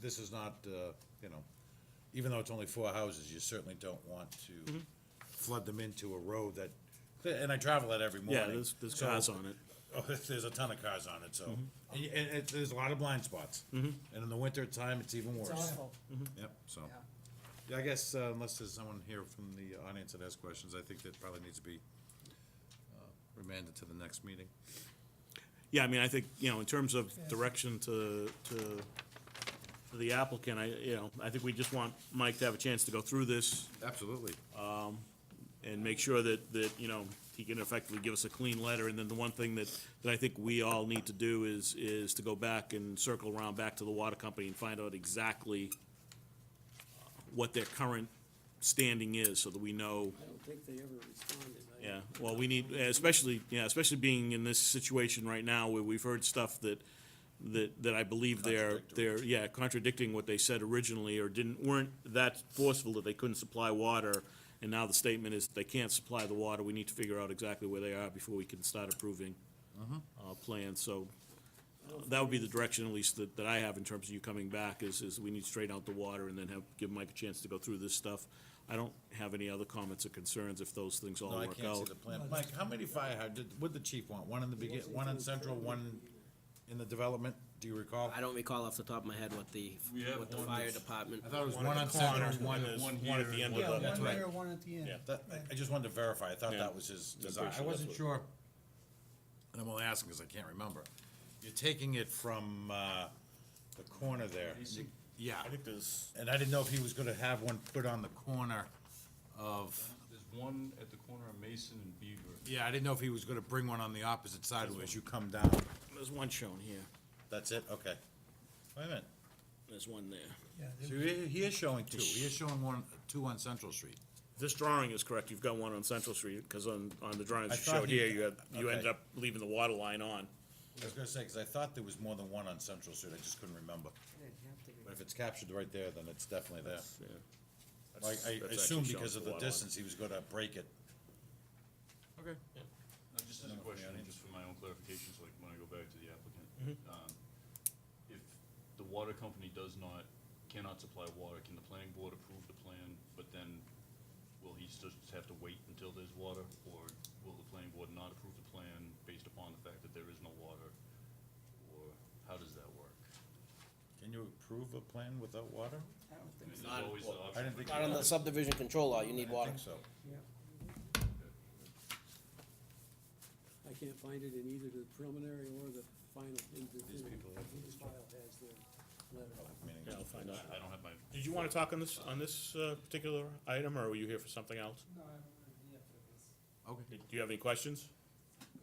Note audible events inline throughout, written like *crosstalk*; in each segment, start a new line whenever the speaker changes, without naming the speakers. this is not, uh, you know, even though it's only four houses, you certainly don't want
Mm-hmm.
to flood them into a road that, and I travel that every morning.
Yeah, there's, there's
so-
cars on it.
Oh, *laughs* there's a ton of cars on it, so,
Mm-hmm.
and, y- and it, there's a lot of blind spots. And in the winter time, it's even worse.
It's awful.
Yep, so,
Yeah.
yeah, I guess uh, unless there's someone here from the audience that has questions, I think that probably needs to be uh, remanded to the next meeting.
Yeah, I mean, I think, you know, in terms of direction to, to to the applicant, I, you know, I think we just want Mike to have a chance to go through this
Absolutely.
and make sure that, that, you know, he can effectively give us a clean letter. And then the one thing that, that I think we all need to do is, is to go back and circle around back to the water company and find out exactly what their current standing is, so that we know,
I don't think they ever responded. I-
yeah. Well, we need, especially, yeah, especially being in this situation right now where we've heard stuff that, that, that I believe they're, they're, yeah, contradicting what they said originally or didn't, weren't that forceful that they couldn't supply water. And now the statement is they can't supply the water. We need to figure out exactly where they are before we can start approving, uh, plans. So uh, that would be the direction at least that, that I have in terms of you coming back is, is we need to straighten out the water and then have, give Mike a chance to go through this stuff. I don't have any other comments or concerns if those things all
No, I
work
can't see
out.
the plan. Mike, how many fire hydrants, what'd the chief want? One in the begin, one in central, one in the development? Do you recall?
I don't recall off the top of my head what the,
We have
what the
one
fire
that's-
department.
I thought it was
One at
one
the
on central,
corner,
one
and then
is,
one
one at
here
the end
and
of
Yeah,
the.
one
right.
there, one at the end.
Yeah.
That, I- I just wanted to verify, I thought
Yeah.
that was his
pretty
design,
sure
I
that's
wasn't
what-
sure. And I'm only asking because I can't remember. You're taking it from, uh, the corner there. Yeah,
I think there's.
and I didn't know if he was gonna have one put on the corner of,
There's one at the corner of Mason and Beaver.
yeah, I didn't know if he was gonna bring one on the opposite side as you come down.
There's one shown here,
That's it, okay. Wait a minute,
there's one there.
Yeah, there-
so he, he is showing two, he is showing one, two on Central Street.
If This drawing is correct, you've got one on Central Street, because on, on the drawings
I
you
thought
showed
he-
here, you had, you
okay.
ended up leaving the water line on.
I was gonna say, because I thought there was more than one on Central Street, I just couldn't remember.
It'd have to be.
But if it's captured right there, then it's definitely there. Like, I
That's- that's actually
assumed
shown
because
to
of the
the water line.
distance, he was gonna break it. Okay.
Now, just as a question, just for my own clarification, so like when I go back to the applicant.
Mm-hmm.
um, If the water company does not, cannot supply water, can the planning board approve the plan, but then will he still just have to wait until there's water? Or will the planning board not approve the plan based upon the fact that there is no water? Or how does that work?
Can you approve a plan without water?
I don't
I
think
mean,
so.
there's always the
I
option
didn't
for
think.
Not on the subdivision control law, you need
I
water.
think so.
Yeah.
I can't find it in either the preliminary or the final. in the-
These people have
in the file has their letter.
public meetings.
Yeah, I'll find out.
I don't have my.
Did you want to talk on this, on this uh, particular item, or were you here for something else?
No, I don't have any evidence.
Do you have any questions?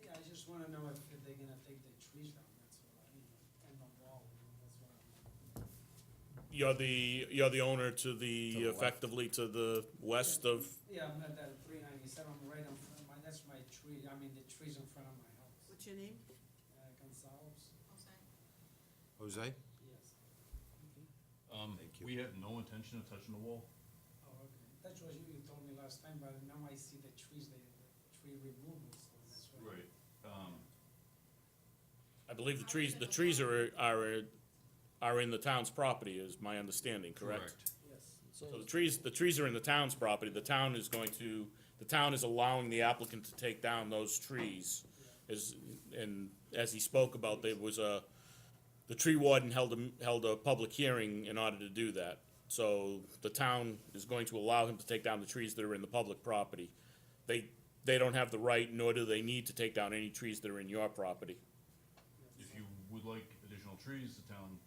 Yeah, I just wanna know if if they're gonna take the trees down, that's what I mean, and the wall, that's what I'm.
You're the, you're the owner
To
to the,
the left.
effectively to the west of,
Yeah, I'm at that three ninety-seven, right in front of my, that's my tree, I mean, the trees in front of my house.
What's your name?
Uh, Gonzalez,
Jose?
yes,
Um,
Thank you.
we have no intention of touching the wall.
oh, okay, that's what you, you told me last time, but now I see the trees, the, the tree removal, so that's why.
Right, um,
I believe the trees, the trees are, are, are in the town's property, is my understanding, correct?
correct.
Yes.
So the trees, the trees are in the town's property, the town is going to, the town is allowing the applicant to take down those trees. As, and as he spoke about, there was a, the tree warden held a, held a public hearing in order to do that. So the town is going to allow him to take down the trees that are in the public property. They, they don't have the right, nor do they need to take down any trees that are in your property.
If you would like additional trees, the town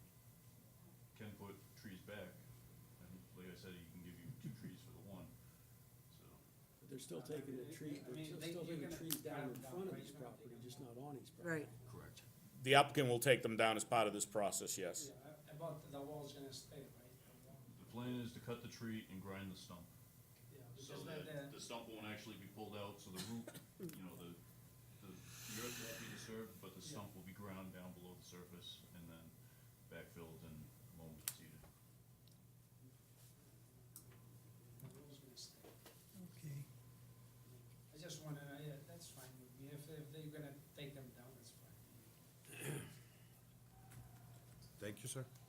can put trees back. And like I said, he can give you two trees for the one, so.
But They're still taking the tree,
I mean,
they're still
they-
still
you're
taking
gonna
trees down in
cut 'em down,
front of
right?
his
You're gonna
property,
take 'em
just
down.
not on his property.
Right.
Correct.
The applicant will take them down as part of this process, yes.
Yeah, a- about the wall's gonna stay, right? The wall,
The plan is to cut the tree and grind the stump,
Yeah,
so
because the,
that
the,
the stump won't actually be pulled out, so the root, you know, the, the the earth will be disturbed, but the stump will be ground down below the surface and then backfilled and loam seeded.
the wall's gonna stay.
Okay.
I just wanna, know, yeah, that's fine with me, if, if they're gonna take them down, that's fine.
Thank you, sir.